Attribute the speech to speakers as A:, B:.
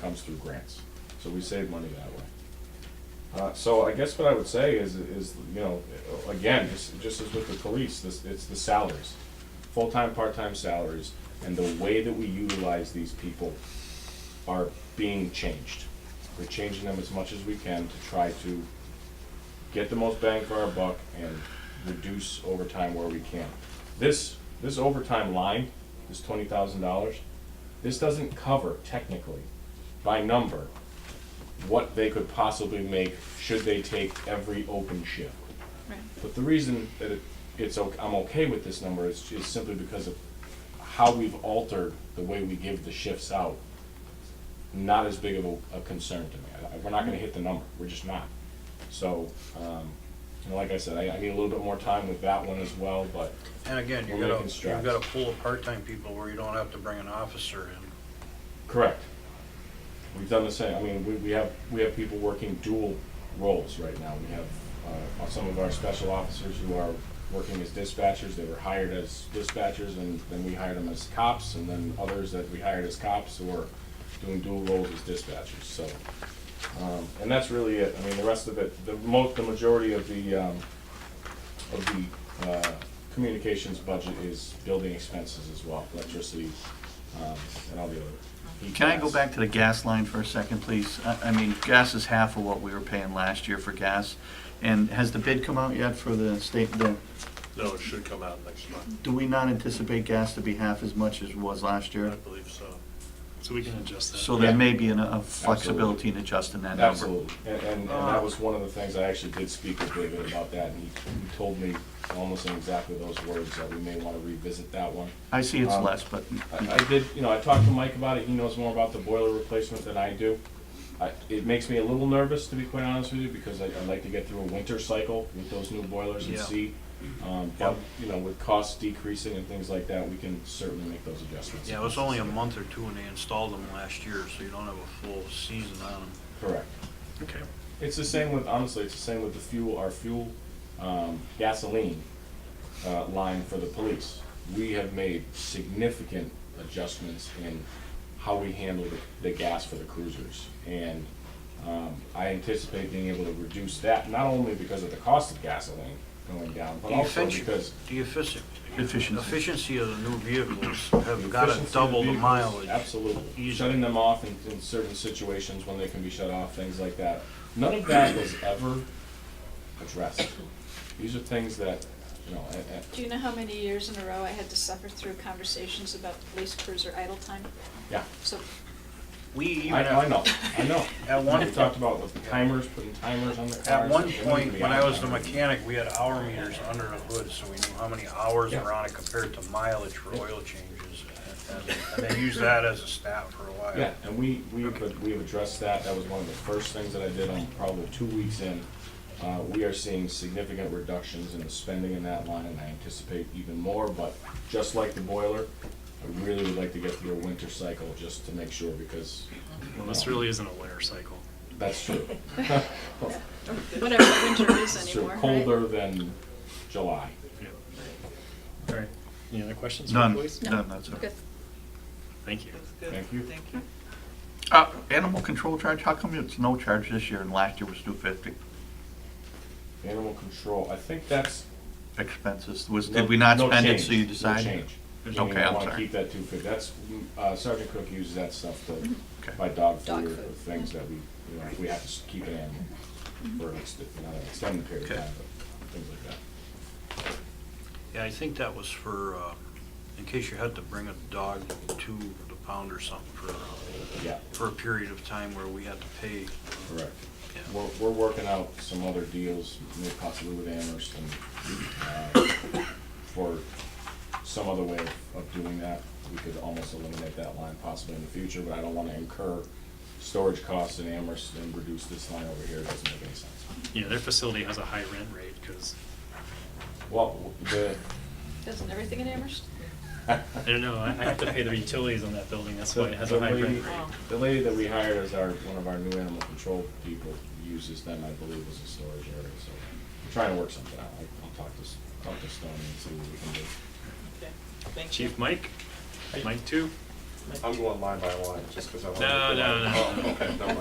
A: comes through grants. So we save money that way. Uh, so I guess what I would say is, is, you know, again, just, just as with the police, this, it's the salaries. Full-time, part-time salaries, and the way that we utilize these people are being changed. We're changing them as much as we can to try to get the most bang for our buck and reduce overtime where we can. This, this overtime line, this twenty thousand dollars, this doesn't cover technically, by number, what they could possibly make should they take every open shift.
B: Right.
A: But the reason that it, it's, o- I'm okay with this number is, is simply because of how we've altered the way we give the shifts out. Not as big of a, a concern to me. I- I- We're not gonna hit the number, we're just not. So, um, you know, like I said, I, I need a little bit more time with that one as well, but
C: And again, you
A: We're
C: gotta,
A: making
C: you
A: strides.
C: gotta pull of part-time people where you don't have to bring an officer in.
A: Correct. We've done the same, I mean, we, we have, we have people working dual roles right now. We have, uh, some of our special officers who are working as dispatchers, they were hired as dispatchers, and then we hired them as cops, and then others that we hired as cops who are doing dual roles as dispatchers, so. Um, and that's really it, I mean, the rest of it, the mo, the majority of the, um, of the, uh, communications budget is building expenses as well, electricity, um, and all the other. heat
D: Can I go
A: gas.
D: back to the gas line for a second, please? I, I mean, gas is half of what we were paying last year for gas. And has the bid come out yet for the state, the,
E: No, it should come out next month,
D: do we not anticipate gas to be half as much as it was last
E: I
D: year?
E: believe so.
F: So we can adjust that.
D: So there may be an- a flexibility in adjusting that number.
A: Absolutely, and, and, and that was one of the things, I actually did speak with David about that, and he, he told me almost in exactly those words, that we may wanna revisit that one.
D: I see it's
A: Um,
D: less, but
A: I, I did, you know, I talked to Mike about it, he knows more about the boiler replacement than I do. I, it makes me a little nervous, to be quite honest with you, because I, I'd like to get through a winter cycle with those new boilers and
C: Yeah.
A: see. Um, but, you know, with costs decreasing and things like that, we can certainly make those adjustments.
C: Yeah, it was only a month or two when they installed them last year, so you don't have a full season on them.
A: Correct.
F: Okay.
A: It's the same with, honestly, it's the same with the fuel, our fuel, um, gasoline, uh, line for the police. We have made significant adjustments in how we handle the- the gas for the cruisers. And, um, I anticipate being able to reduce that, not only because of the cost of gasoline going down, but
C: The
A: also
C: effici-
A: because.
C: The effici-
D: Efficiency.
C: Efficiency of the new vehicles have gotta
A: efficiency of
C: double the
A: vehicles,
C: mileage.
A: Absolutely.
C: Easy.
A: Shutting them off in, in certain situations when they can be shut off, things like that. None of that was ever addressed. These are things that, you know, eh, and, and,
B: Do you know how many years in a row I had to suffer through conversations about the police cruiser idle time?
A: yeah.
B: So,
C: We even,
A: I, I
C: at
A: know, I know.
C: At one-
A: We talked about with timers, putting timers on the cars.
C: at one
A: They need to
C: point,
A: be
C: when
A: on
C: I was the
A: time.
C: mechanic, we had hour meters under the hood, so we knew how many hours
A: Yeah.
C: were on it compared to mileage for oil changes. And- And and they used that as a stat for a while.
A: Yeah, and we, we, but we've addressed that, that was one of the first things that I did, I'm probably two weeks in. Uh, we are seeing significant reductions in the spending in that line, and I anticipate even more, but just like the boiler, I really would like to get through a winter cycle just to make sure, because um,
F: Well, this really isn't a winter cycle.
A: that's true.
B: whatever winter is
A: It's
B: anymore, right?
A: colder than July.
F: All right. Any other questions?
D: none,
F: Please?
B: No.
D: none, that's all.
B: Good.
F: Thank you.
A: Thank you.
D: Uh, animal control charge, how come it's no charge this year and last year was two fifty?
A: Animal control, I think that's.
D: Expenses, was,
A: no-
D: did we not
A: no
D: spend it,
A: change,
D: so you
A: no
D: decided?
A: change.
D: It's
A: I mean,
D: okay,
A: I
D: I'm
A: wanna
D: sorry.
A: keep that two fifty, that's, uh, Sergeant Cook uses that stuff to
D: Mm-hmm. Okay.
A: buy dog
B: Dog
A: food or
B: food,
A: things that we, you know, we have to s- keep an animal
B: Mm-hmm.
A: for an ext- you know, an extended period of
D: Okay.
A: time, but things like that.
C: Yeah, I think that was for, uh, in case you had to bring a dog to the pound or something for, uh,
A: Yeah,
C: for a period of time where we had to pay.
A: correct.
C: Yeah.
A: We're, we're working out some other deals, maybe possibly with Amherst and, uh, for some other way of- of doing that. We could almost eliminate that line possibly in the future, but I don't wanna incur storage costs in Amherst and reduce this line over here, it doesn't make any sense.
F: Yeah, their facility has a high rent rate because,
A: Well, the,
B: Doesn't everything in Amherst?
F: I don't know, I I have to pay their utilities on that building, that's
A: So
F: why it has a high
A: lady-
F: rent rate.
A: The lady that we hired as our, one of our new animal control people uses them, I believe, as a storage area, so we're trying to work something out. I- I'll talk to, S- talk to Stony and see what we can do.
F: Chief Mike, Mike two,
A: I'm going line by line, just because I want to.
F: No, no, no.
A: Oh, okay, never mind.